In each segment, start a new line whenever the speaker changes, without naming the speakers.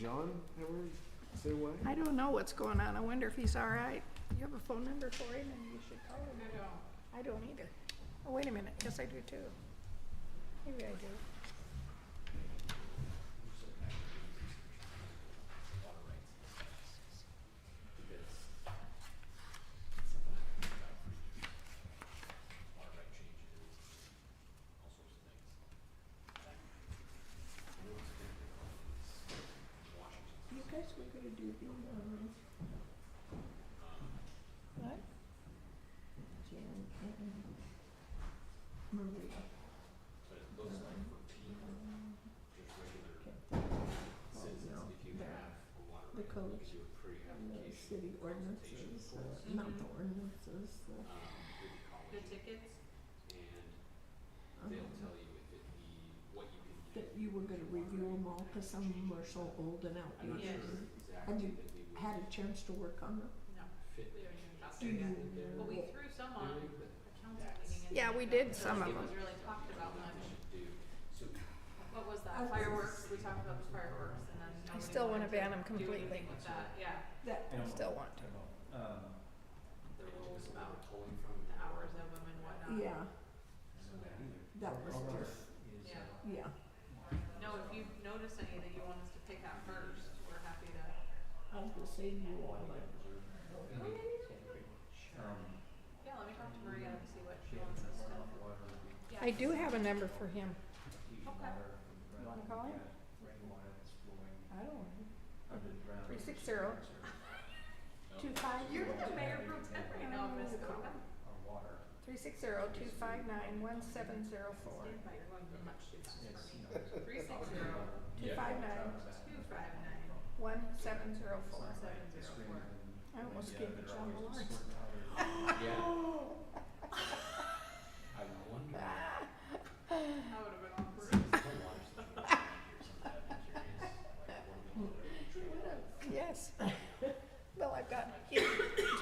John ever say why?
I don't know what's going on. I wonder if he's all right. You have a phone number for him and you should call him. I don't. I don't either. Oh, wait a minute. Yes, I do too. Maybe I do. You guys were gonna do the, um, what? Jan and Maria. But it looks like for people, just regular citizens, if you have water. The codes. and The city ordinances, uh, not the ordinances, Um, the.
Mm-hmm. The tickets?
They'll tell you if it, what you can Uh-huh. That you were gonna review them all, cause some of them are so old and outdated.
Yes.
Have you had a chance to work on them? Mm-hmm.
No. We already talked
Do
about
you
that. But we
know-
threw some on a council meeting. and
Yeah, we did
so
some of
It was
them.
really talked about much. What was
I
that?
was-
Fireworks, we talked about the fireworks and then
I
nobody
still wanna
wanted
ban them
do
completely.
anything with that, yeah.
That,
Still want to.
The rules about the hours of them and whatnot.
yeah, that was just,
Yeah.
yeah.
No, if you notice any that you want us to pick out first, we're happy to.
I was gonna say you all like,
Yeah, let me talk to Maria and see what she wants us to. Yeah.
I do have a number for him.
Okay.
You wanna call him? I don't know. Three six zero. Two five.
You're the mayor pro temp right now, Miss Coca.
Three six zero two five nine one seven zero four.
Stand by, you're going much too fast for me. Three six zero,
Two five nine
two five nine,
one seven zero four.
one seven zero four.
I almost gave it John Lawrence.
That would have been awkward.
Yes. Well, I've got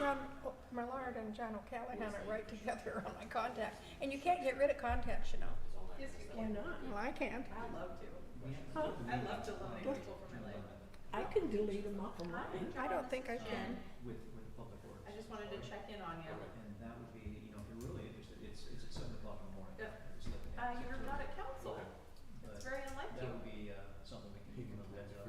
John O- Millard and John O'Callahan are right together on my contacts. And you can't get rid of contacts, you know.
Yes, you
why
can.
not?
Well, I can't.
I love to.
Huh?
I love to eliminate people from my life.
I can delete them off of mine.
I don't think I can.
with, with the public works.
I just wanted to check Uh, in on you.
And that would be, you know, if you're really interested, it's, it's at seven o'clock in the morning.
Yeah.
it's like an hour,
Uh, you were
so-
not at council. It's
But
very unlike
that
you.
would be, uh, something we can, you know, that, uh,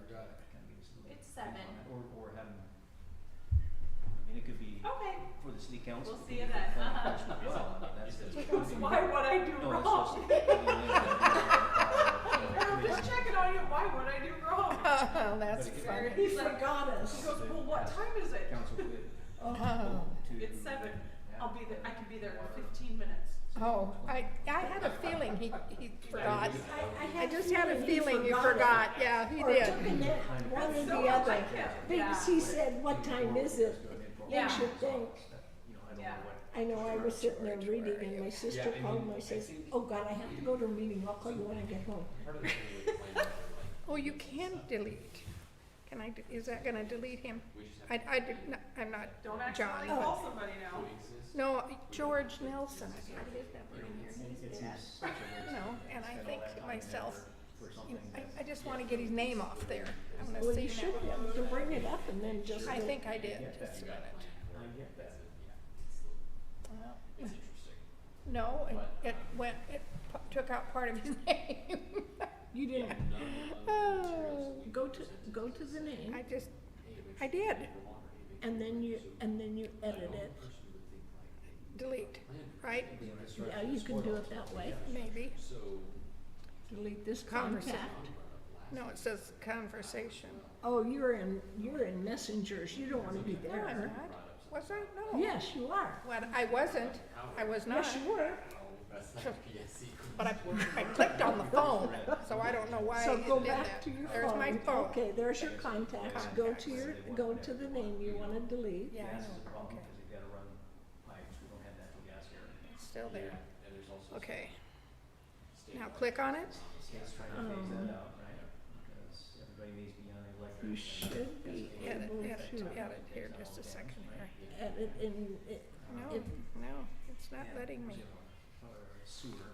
kind of give us a little.
It's
bit on
seven.
it, Or, or having, I mean, it could be
Okay,
for the city council.
We'll
it could
see
be
you
for
then.
planning commission as
Uh-huh.
well. I mean, that's just-
why would I do
No, that's
wrong?
just- I mean,
I'm
yeah, yeah, yeah, yeah, yeah, yeah, yeah,
just checking on you, why would I do wrong?
Oh, that's
But it-
funny.
He forgot
He
us.
goes, well, what time is it?
Council would.
Oh.
to-
It's seven. I'll be there, I can be there in fifteen minutes.
Oh, I, I had a feeling he, he forgot.
I,
I just had a feeling you forgot. Yeah, he
Or
did.
took a nap, one or
That's so
the other.
unlike him.
Because
Yeah.
he said, what time is it?
Yeah.
You should think.
You know, I don't know
Yeah.
what.
I know, I was sitting there reading and my sister called me, I says, oh God, I have to go to a meeting, I'll call you when I get home.
Oh, you can delete. Can I, de- is that gonna delete him? I, I did not, I'm not,
Don't accidentally
John.
call somebody now.
no, George Nelson, I got his number in here.
It- it seems such a
You
waste
know,
to
and I
spend all
think
that
to
time and
myself,
effort for
you know,
something
I,
that's-
I just wanna get his name off there. I'm gonna
Well,
see
you should
him.
be able to bring it up and then just.
I
go-
think I did, just a minute.
I get that.
Well, No, it, it went, it p- took out part of his name.
You didn't,
Oh,
go to, go to the name
I just, I did,
and then you, and then you edit it.
delete, right?
Yeah, you can do it that way.
Maybe.
Delete this
Conversa-
contact.
No, it says conversation.
Oh, you're in, you're in messengers, you don't wanna be
No, I'm
there.
not. Was I? No.
Yes, you are.
Well, I wasn't. I was not.
Yes, you were.
But I, I clicked on the phone, so I don't know why
So
it
go
did
back
that.
to your phone.
There's my phone.
Okay, there's your contacts, go to your, go to the name you wanna delete.
Yeah, I
Gas
know.
is a problem
Okay.
because they've gotta run pipes, we don't have natural gas here.
It's Still there. Okay. Now click on it.
State's trying to phase that out, right? Because everybody needs to be on electric.
You
and
should be
Edit,
able
edit,
to
edit. Here, just a second here.
edit in, it-
No,
Uh,
If-
no, it's not letting me.
Or sewer,